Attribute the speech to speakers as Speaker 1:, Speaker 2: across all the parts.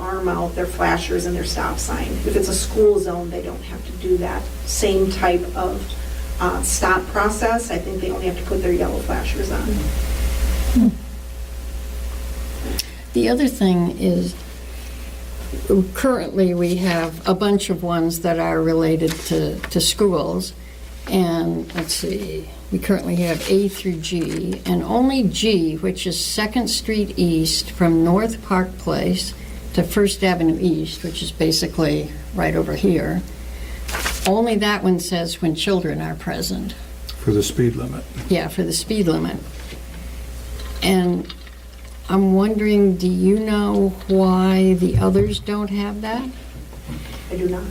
Speaker 1: term out their flashers and their stop sign. If it's a school zone, they don't have to do that same type of uh, stop process. I think they only have to put their yellow flashers on.
Speaker 2: The other thing is, currently, we have a bunch of ones that are related to, to schools. And let's see, we currently have A through G, and only G, which is Second Street East from North Park Place to First Avenue East, which is basically right over here. Only that one says when children are present.
Speaker 3: for the speed limit.
Speaker 2: Yeah, for the speed limit. And I'm wondering, do you know why the others don't have that?
Speaker 1: I do not.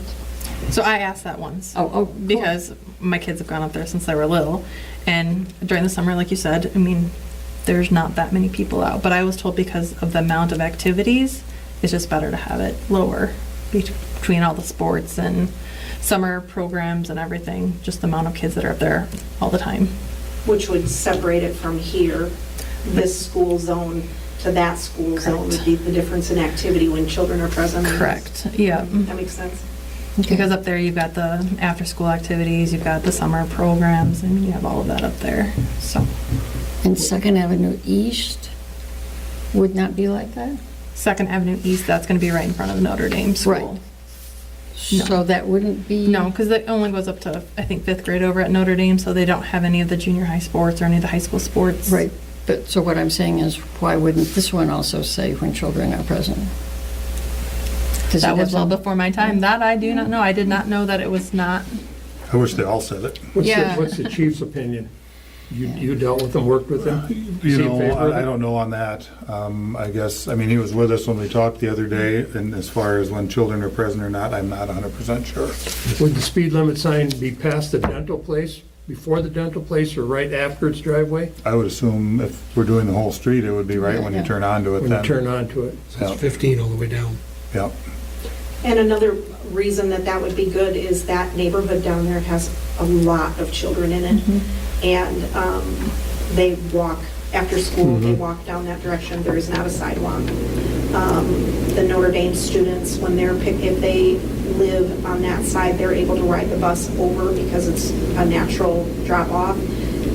Speaker 4: So I asked that once.
Speaker 2: Oh, oh, cool.
Speaker 4: Because my kids have gone up there since they were little. And during the summer, like you said, I mean, there's not that many people out. But I was told because of the amount of activities, it's just better to have it lower bet- between all the sports and summer programs and everything. Just the amount of kids that are up there all the time.
Speaker 1: Which would separate it from here, this school zone to that school zone would
Speaker 4: Correct.
Speaker 1: be the difference in activity when children are present.
Speaker 4: Yeah.
Speaker 1: That makes sense.
Speaker 4: Because up there, you've got the after school activities, you've got the summer programs, and you have all of that up there. So.
Speaker 2: And Second Avenue East would not be like that?
Speaker 4: Second Avenue East, that's going to be right in front of Notre Dame School.
Speaker 2: Right. So that wouldn't be?
Speaker 4: No, because it only goes up to, I think, fifth grade over at Notre Dame, so they don't have any of the junior high sports or any of the high school sports.
Speaker 2: Right, but, so what I'm saying is, why wouldn't this one also say when children are present? Does it
Speaker 4: That was
Speaker 2: have
Speaker 4: well
Speaker 2: some-
Speaker 4: before my time. That I do not know. I did not know that it was not.
Speaker 3: I wish they all said it.
Speaker 5: What's the,
Speaker 2: Yeah.
Speaker 5: what's the chief's opinion? You, you dealt with them, worked with them?
Speaker 3: You
Speaker 5: Is he in
Speaker 3: know,
Speaker 5: favor of
Speaker 3: I I
Speaker 5: it?
Speaker 3: don't know on that. Um, I guess, I mean, he was with us when we talked the other day, and as far as when children are present or not, I'm not 100% sure.
Speaker 5: Would the speed limit sign be past the dental place, before the dental place, or right after its driveway?
Speaker 3: I would assume if we're doing the whole street, it would be right when you
Speaker 2: Yeah.
Speaker 3: turn onto it
Speaker 5: When you
Speaker 3: then.
Speaker 5: turn onto it?
Speaker 3: Yeah.
Speaker 6: It's 15 all the way down.
Speaker 3: Yep.
Speaker 1: And another reason that that would be good is that neighborhood down there has a lot of children in it. And um, they walk, after school, they walk down that direction. There is not a sidewalk. Um, The Notre Dame students, when they're, pick- if they live on that side, they're able to ride the bus over because it's a natural drop-off.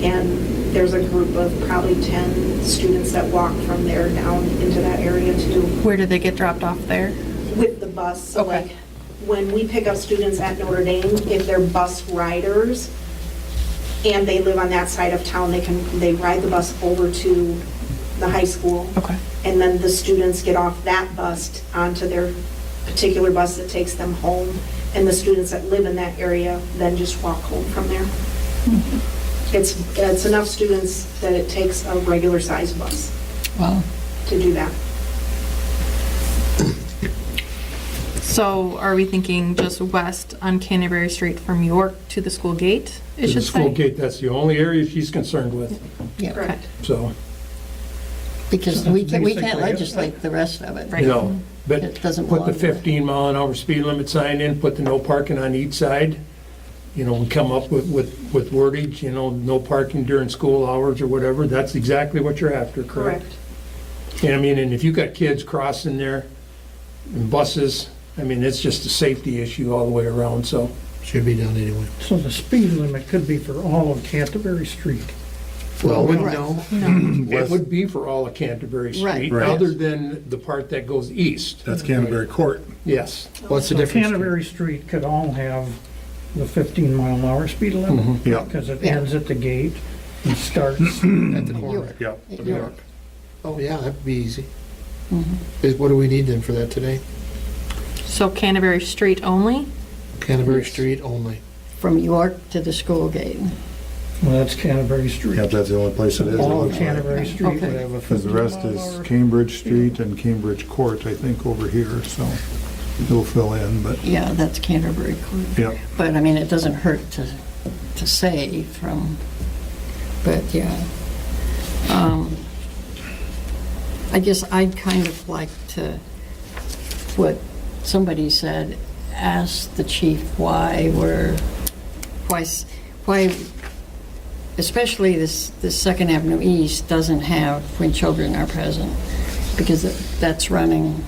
Speaker 1: And there's a group of probably 10 students that walk from there down into that area to do
Speaker 4: Where did they get dropped off there?
Speaker 1: with the bus, so
Speaker 4: Okay.
Speaker 1: like, when we pick up students at Notre Dame, if they're bus riders and they live on that side of town, they can, they ride the bus over to the high school.
Speaker 4: Okay.
Speaker 1: And then the students get off that bus onto their particular bus that takes them home. And the students that live in that area then just walk home from there.
Speaker 4: Mm-hmm.
Speaker 1: It's, it's enough students that it takes a regular-sized bus
Speaker 2: Well,
Speaker 1: to do that.
Speaker 4: So are we thinking just west on Canterbury Street from York to the school gate? It
Speaker 5: To
Speaker 4: should
Speaker 5: the school
Speaker 4: say.
Speaker 5: gate, that's the only area she's concerned with,
Speaker 2: yeah,
Speaker 1: Correct.
Speaker 5: so,
Speaker 2: because we can't, we
Speaker 5: Basically,
Speaker 2: can't
Speaker 5: yeah.
Speaker 2: legislate the rest of it.
Speaker 4: Right.
Speaker 5: you know.
Speaker 2: It
Speaker 5: But
Speaker 2: doesn't
Speaker 5: put the
Speaker 2: belong there.
Speaker 5: 15 mile an hour speed limit sign in, put the no parking on each side. You know, we come up with, with, with wordage, you know, no parking during school hours or whatever. That's exactly what you're after, correct?
Speaker 1: Correct.
Speaker 5: And I mean, and if you got kids crossing there, and buses, I mean, it's just a safety issue all the way around, so.
Speaker 6: Should be done anyway.
Speaker 7: So the speed limit could be for all of Canterbury Street.
Speaker 5: Well,
Speaker 2: we-
Speaker 5: It would be for all of Canterbury
Speaker 2: Right.
Speaker 5: Street,
Speaker 3: Right.
Speaker 5: other than the part that goes east.
Speaker 3: That's Canterbury Court.
Speaker 5: Yes.
Speaker 6: What's the
Speaker 7: So
Speaker 6: difference?
Speaker 7: Canterbury Street could all have the 15 mile an hour speed limit
Speaker 3: Yep,
Speaker 7: because it
Speaker 2: Yeah.
Speaker 7: ends at the gate and starts.
Speaker 6: At the corner
Speaker 3: yep.
Speaker 2: York.
Speaker 6: of York. Oh, yeah, that'd be easy. Is- What do we need then for that today?
Speaker 4: So Canterbury Street only?
Speaker 6: Canterbury
Speaker 2: Yes.
Speaker 6: Street only.
Speaker 2: From York to the school gate.
Speaker 7: Well, that's Canterbury Street.
Speaker 3: Yep, that's the only place it is.
Speaker 7: All of Canterbury Street would
Speaker 2: Okay.
Speaker 7: have a 15 mile an hour.
Speaker 3: Because the rest is Cambridge Street and Cambridge Court, I think, over here, so it'll fill in, but,
Speaker 2: Yeah, that's Canterbury Court.
Speaker 3: yep.
Speaker 2: But I mean, it doesn't hurt to, to say from, but yeah. Um, I guess I'd kind of like to, what somebody said, ask the chief why we're, why, s- why, especially this, this Second Avenue East doesn't have when children are present, because it- that's running